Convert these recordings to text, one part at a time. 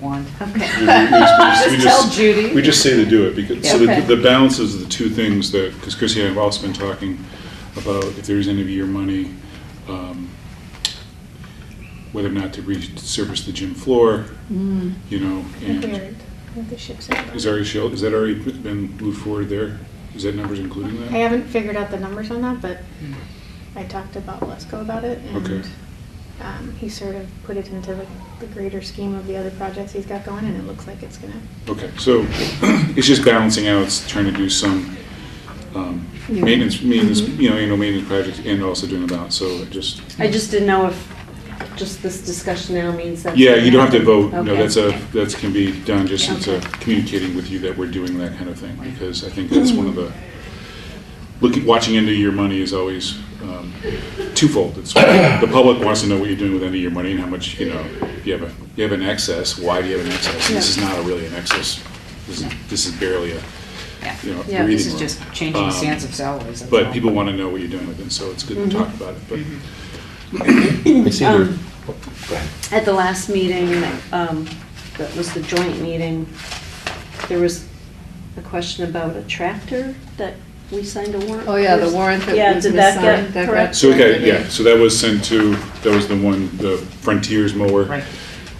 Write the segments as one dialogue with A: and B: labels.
A: one.
B: Okay.
C: We- we- we just- we
A: Tell
C: just-
A: Judy.
C: We just say to do it, because, so
A: Yeah.
C: the, the balance is the two things that, because Chrissy and I have also been talking about if there's any of your money, um, whether or not to resurface the gym floor,
A: Mm.
C: you know, and, is already, shel- is that already been moved forward there? Is that numbers including
D: I
C: that?
D: haven't figured out the numbers on that, but I talked to Bob Lesko about it, and
C: Okay.
D: um, he sort of put it into the the greater scheme of the other projects he's got going, and it looks like it's gonna,
C: Okay, so it's just balancing out, it's trying to do some um,
A: Yeah. Mm-hmm.
C: maintenance, maintenance, you know, annual maintenance projects and also doing a balance, so it just,
B: I just didn't know if just this discussion now means that.
C: yeah, you don't have to vote, no,
B: Okay.
C: that's a, that can be done, just it's a
B: Okay.
C: communicating with you that we're doing that kind of thing, because I think that's one of the, looking, watching into your money is always um, twofold. It's, the public wants to know what you're doing with end of your money and how much, you know, if you have a, you have an excess, why do you have an excess? And This is
B: Yeah.
C: not a really an excess, this is, this is barely a, you know,
A: Yeah, this
C: breathing
A: is
C: room.
A: just changing
C: Um,
A: sands of Mm-hmm. salaries. that's
C: But
A: all.
C: people want to know what you're doing with it, so it's good to talk about it, but
E: I see there,
B: Um, At the last meeting, um, that was the joint meeting, there was a question about a tractor that we signed a warrant.
F: Oh, yeah, the
B: for.
F: warrant that
B: Yeah,
F: was
B: did that get
F: missigned, that got-
B: correct?
C: So, okay, yeah, so that was sent to, that was the one, the Frontiers mower
A: Right.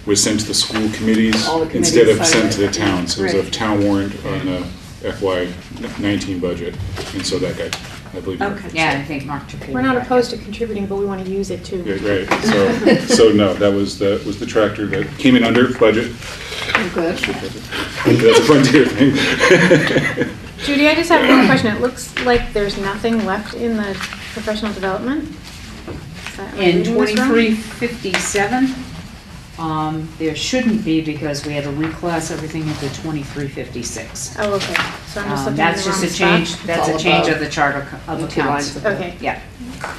C: was sent to the school committees
B: All the
C: instead of
B: committees
C: sent
B: signed
C: to the
B: it.
C: town. So it was a
B: Right.
C: town warrant on the FY nineteen budget, and so that got, I believe.
B: Okay.
A: Yeah, I think Mark took it.
D: we're not opposed to contributing, but we want to use it too.
C: Yeah, right, so, so no, that was, that was the tractor that came in under budget.
F: Oh, Good.
C: That's a Frontier thing.
D: Judy, I just have one question. It looks like there's nothing left in the professional development. Is that- am I
A: In
D: reading this wrong?
A: twenty-three fifty-seven, um, there shouldn't be because we had to reclass everything into twenty-three fifty-six.
D: Oh, okay, so I'm just
A: Um,
D: looking in
A: that's
D: the
A: just a
D: wrong
A: change,
D: spot.
A: that's
F: all
A: a change of
F: above
A: the charter co- of
F: the two lines
A: accounts.
F: of
D: Okay.
A: Yeah,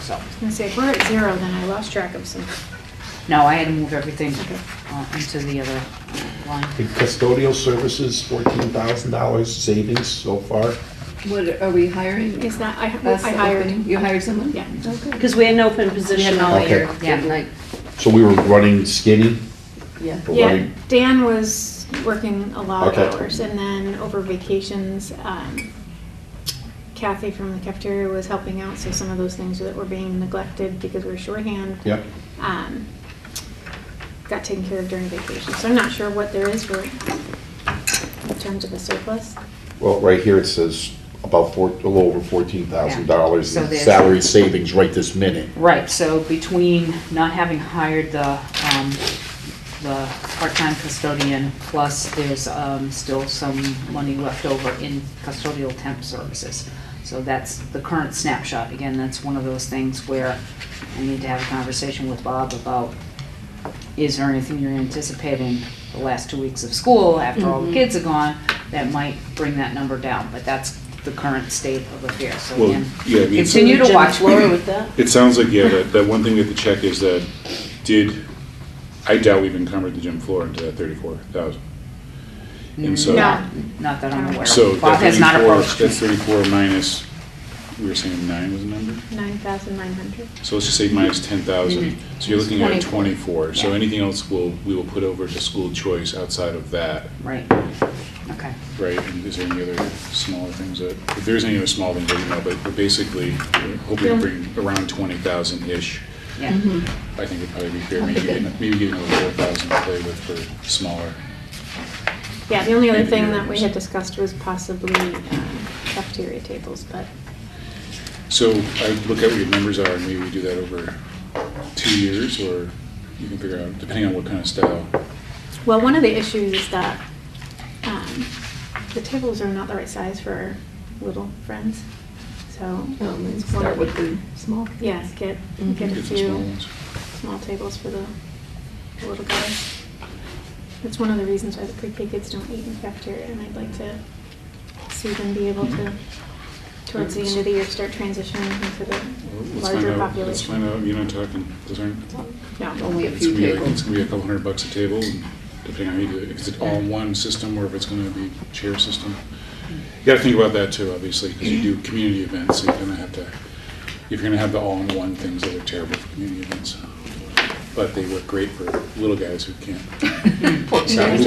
A: so,
D: I was gonna say, if we're at zero, then I lost track of some.
A: no, I had to move everything
D: Okay.
A: uh, into the other line.
E: the custodial services, fourteen thousand dollars savings so far.
F: What, are we hiring?
D: It's not, I I
F: That's the
D: hired.
F: opening. You hired someone?
D: Yeah.
F: Okay.
B: Because we had an open
F: We had
B: position
F: an
B: all
E: Okay.
B: year.
F: all-year,
A: Yeah.
F: good night,
E: So we were running skinny,
F: yeah.
E: but
D: Yeah,
E: running,
D: Dan was working a lot of
E: Okay.
D: hours, and then over vacations, um, Kathy from the cafeteria was helping out, so some of those things that were being neglected because we were shorthand.
E: yep.
D: um, Got taken care of during vacation, so I'm not sure what there is for, in terms of a surplus.
E: Well, right here it says about four, a little over fourteen thousand dollars
A: So
E: in
A: there's-
E: salary savings right this minute.
A: Right, so between not having hired the, um, the part-time custodian, plus there's, um, still some money left over in custodial temp services. So that's the current snapshot. Again, that's one of those things where I need to have a conversation with Bob about, is there anything you're anticipating the last two weeks of school, after all the kids are gone, that might bring that number down, but that's the current state of affairs, so
C: Well,
A: again,
C: yeah, I mean, it's-
A: continue to
B: Jim
A: watch.
B: Flora with that?
C: It sounds like, yeah, that, that one thing we have to check is that, did, I doubt we've encumbered the gym floor into that thirty-four thousand. And so,
D: Yeah.
A: Not that I'm aware
C: so
A: of. Bob
C: that
A: has not
C: thirty-four,
A: approached.
C: that's thirty-four minus, we were saying nine was the number?
D: Nine thousand nine hundred.
C: So let's just say minus ten thousand, so you're looking at twenty-four, so
A: Yeah.
C: anything else will, we will put over to school choice outside of that,
A: Right. Okay.
C: right? And is there any other smaller things that, if there's any other small things, let me know, but but basically, we're hoping to
D: Yeah.
C: bring around twenty thousand-ish.
A: Yeah.
C: I think it'd probably be fair, maybe getting, maybe getting a four thousand to play with for smaller.
D: Yeah, the only other
C: Maybe
D: thing
C: there
D: that we
C: is.
D: had discussed was possibly um, cafeteria tables, but
C: So I look at what your numbers are, and maybe we do that over two years, or you can figure out, depending on what kind of style.
D: Well, one of the issues is that um, the tables are not the right size for our little friends. So
F: Um, and
D: it's
F: Start
D: one-
F: with the small.
D: Yeah, get,
F: Mhm.
D: get a
C: Get some small
D: few
C: ones. Oh,
D: small tables for the the little guys. That's one of the reasons why the pre-K kids don't eat in the cafeteria, and I'd like to see them be able to, towards the end of the year, start transitioning into
C: Well,
D: the
C: Let's find
D: larger
C: out, let's find
D: population.
C: out, you're not talking, those aren't,
D: No,
F: Only a
C: it's
F: few
C: gonna be like,
F: people.
C: it's gonna be a couple hundred bucks a table, and depending on how you do it, if it's all one system, or if it's gonna be chair system.
F: Mm.
C: You gotta think about that too, obviously, because you do community events, so you're gonna have to, if you're gonna have the all-in-one things that are terrible for community events. But they work great for little guys who can't.
F: Poor
C: Who
F: children.